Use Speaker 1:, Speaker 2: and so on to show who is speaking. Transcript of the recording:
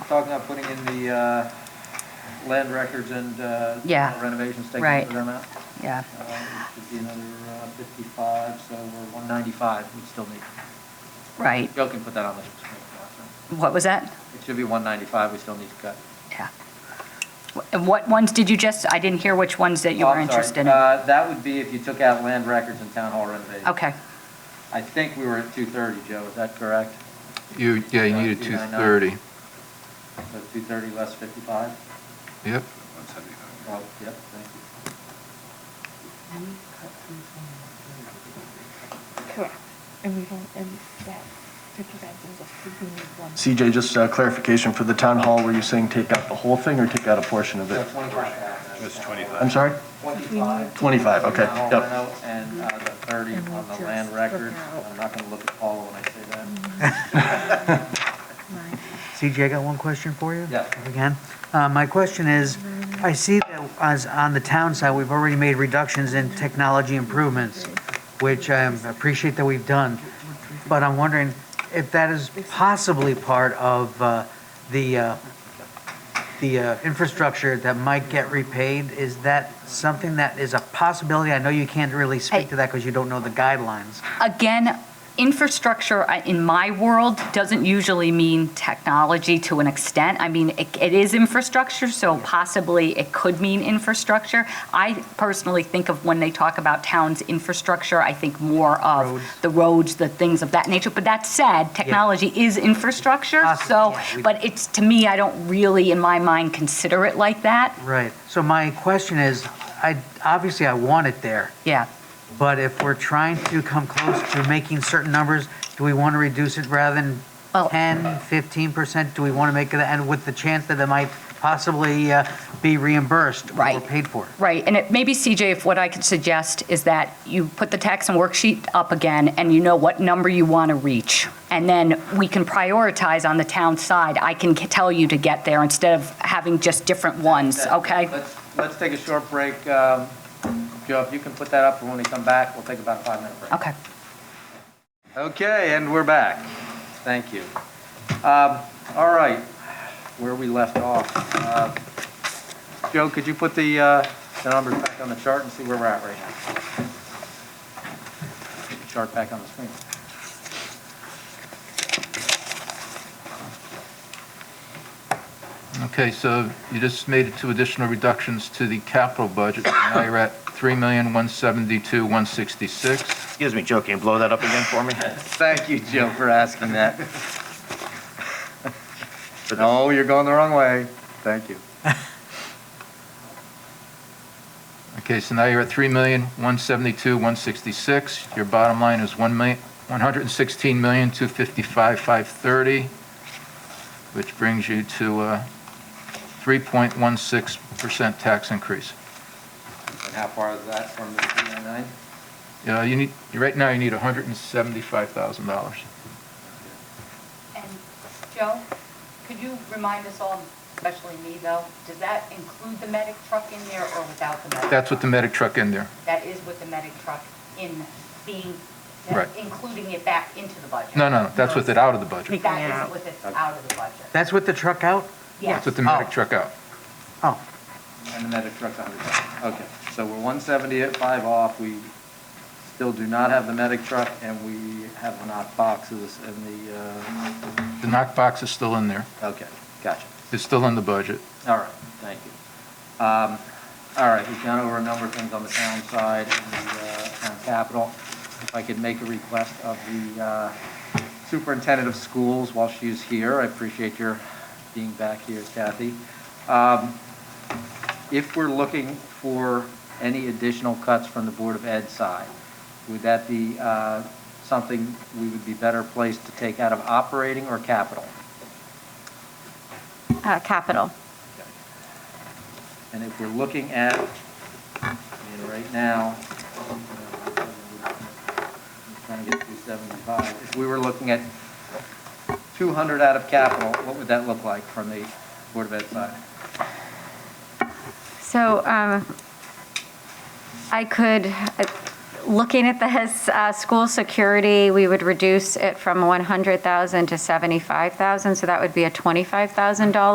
Speaker 1: talking about putting in the uh, land records and uh,
Speaker 2: Yeah.
Speaker 1: renovations, taking
Speaker 2: Right.
Speaker 1: them out.
Speaker 2: yeah.
Speaker 1: Uh, It should be another uh, 55, so we're 195, we still need,
Speaker 2: Right.
Speaker 1: Joe can put that on the screen.
Speaker 2: What was that?
Speaker 1: It should be 195, we still need to cut.
Speaker 2: Yeah. Wh- And what ones did you just, I didn't hear which ones that you
Speaker 1: Oh,
Speaker 2: were
Speaker 1: I'm sorry.
Speaker 2: interested in.
Speaker 1: Uh, That would be if you took out land records and town hall renovations.
Speaker 2: Okay,
Speaker 1: I think we were at 230, Joe, is that correct?
Speaker 3: You, yeah, you needed
Speaker 1: Two
Speaker 3: two
Speaker 1: nine nine.
Speaker 3: thirty.
Speaker 1: So 230 less 55?
Speaker 3: Yep.
Speaker 1: Oh, yep, thank you.
Speaker 4: Correct. And we don't, and that fifty thousand is a, we need one.
Speaker 5: CJ, just uh, clarification for the town hall, were you saying take out the whole thing or take out a portion of
Speaker 1: So
Speaker 5: it?
Speaker 1: 25,000.
Speaker 6: That's 25.
Speaker 5: I'm sorry?
Speaker 1: 25.
Speaker 5: 25, okay,
Speaker 1: Now,
Speaker 5: yep.
Speaker 1: now, And uh, the 30
Speaker 4: And
Speaker 1: on
Speaker 4: we'll
Speaker 1: the land
Speaker 4: just
Speaker 1: record.
Speaker 4: look out. Mm-hmm.
Speaker 1: I'm not going to look at Paula when I say that.
Speaker 4: Nine.
Speaker 7: CJ, I got one question for you.
Speaker 1: Yeah.
Speaker 7: If we can. Uh, My question is, I see that as on the town side, we've already made reductions in technology improvements, which I appreciate that we've done. But I'm wondering if that is possibly part of uh, the, uh, the uh, infrastructure that might get repaid. Is that something that is a possibility? I know you can't really
Speaker 2: I-
Speaker 7: speak to that because you don't know the guidelines.
Speaker 2: again, infrastructure I- in my world doesn't usually mean technology to an extent. I mean, it, it is infrastructure, so possibly it could mean infrastructure. I personally think of when they talk about towns' infrastructure, I think more of
Speaker 7: Roads.
Speaker 2: the roads, the things of that nature. But that said, technology is infrastructure,
Speaker 7: Possibly,
Speaker 2: so,
Speaker 7: Ah, yeah, we-
Speaker 2: but it's to me, I don't really, in my mind, consider it like that.
Speaker 7: Right. So my question is, I, obviously I want it there.
Speaker 2: Yeah.
Speaker 7: But if we're trying to come close to making certain numbers, do we want to reduce it rather than
Speaker 2: Well-
Speaker 7: 10, 15%? Do we want to make it, and with the chance that it might possibly uh, be reimbursed or
Speaker 2: Right.
Speaker 7: paid for?
Speaker 2: Right, and it, maybe CJ, if what I could suggest is that you put the tax and worksheet up again, and you know what number you want to reach. And then we can prioritize on the town side. I can c- tell you to get there instead of having just different ones,
Speaker 1: That-
Speaker 2: okay?
Speaker 1: Let's, let's take a short break. Um, Joe, if you can put that up, and when we come back, we'll take about a five-minute break.
Speaker 2: Okay.
Speaker 1: Okay, and we're back. Thank you. Um, All right, where we left off. uh, Joe, could you put the, uh, the numbers back on the chart and see where we're at right now? Chart back on the screen.
Speaker 3: Okay, so you just made two additional reductions to the capital budget. Now you're at three million, one seventy-two, one sixty-six.
Speaker 6: Excuse me, Joe, can you blow that up again for me?
Speaker 1: Thank you, Joe, for asking that. No, you're going the wrong way. Thank you.
Speaker 3: Okay, so now you're at three million, one seventy-two, one sixty-six. Your bottom line is one million, one hundred and sixteen million, two fifty-five, five thirty, which brings you to, uh, three point one six percent tax increase.
Speaker 1: And how far is that from the 399?
Speaker 3: Uh, you need, right now you need hundred and seventy-five thousand dollars.
Speaker 2: And Joe, could you remind us all, especially me though, does that include the medic truck in there or without the medic?
Speaker 3: That's with the medic truck in there.
Speaker 2: That is with the medic truck in being, uh,
Speaker 3: Right.
Speaker 2: including it back into the budget?
Speaker 3: No, no, no, that's with it out of the budget.
Speaker 2: That is with it out of the budget.
Speaker 7: That's with the truck out?
Speaker 3: That's with the medic truck out.
Speaker 7: Oh,
Speaker 1: And the medic truck's a hundred thousand. Okay, so we're one seventy at five off, we still do not have the medic truck, and we have the knock boxes and the, uh,
Speaker 3: The knock box is still in there.
Speaker 1: okay, gotcha.
Speaker 3: It's still in the budget.
Speaker 1: All right, thank you. Um, all right, we've gone over a number of things on the town side and the, uh, town capital. If I could make a request of the, uh, superintendent of schools while she's here, I appreciate your being back here, Kathy. Um, if we're looking for any additional cuts from the Board of Ed side, would that be, uh, something we would be better placed to take out of operating or capital?
Speaker 8: Uh, Capital.
Speaker 1: And if we're looking at, I mean, right now, uh, I'm trying to get through 75, if we were looking at 200 out of capital, what would that look like from the Board of Ed side?
Speaker 8: So um, I could, uh,
Speaker 2: looking at the uh, school security, we would reduce it from 100,000 to 75,000, so that would be a $25,000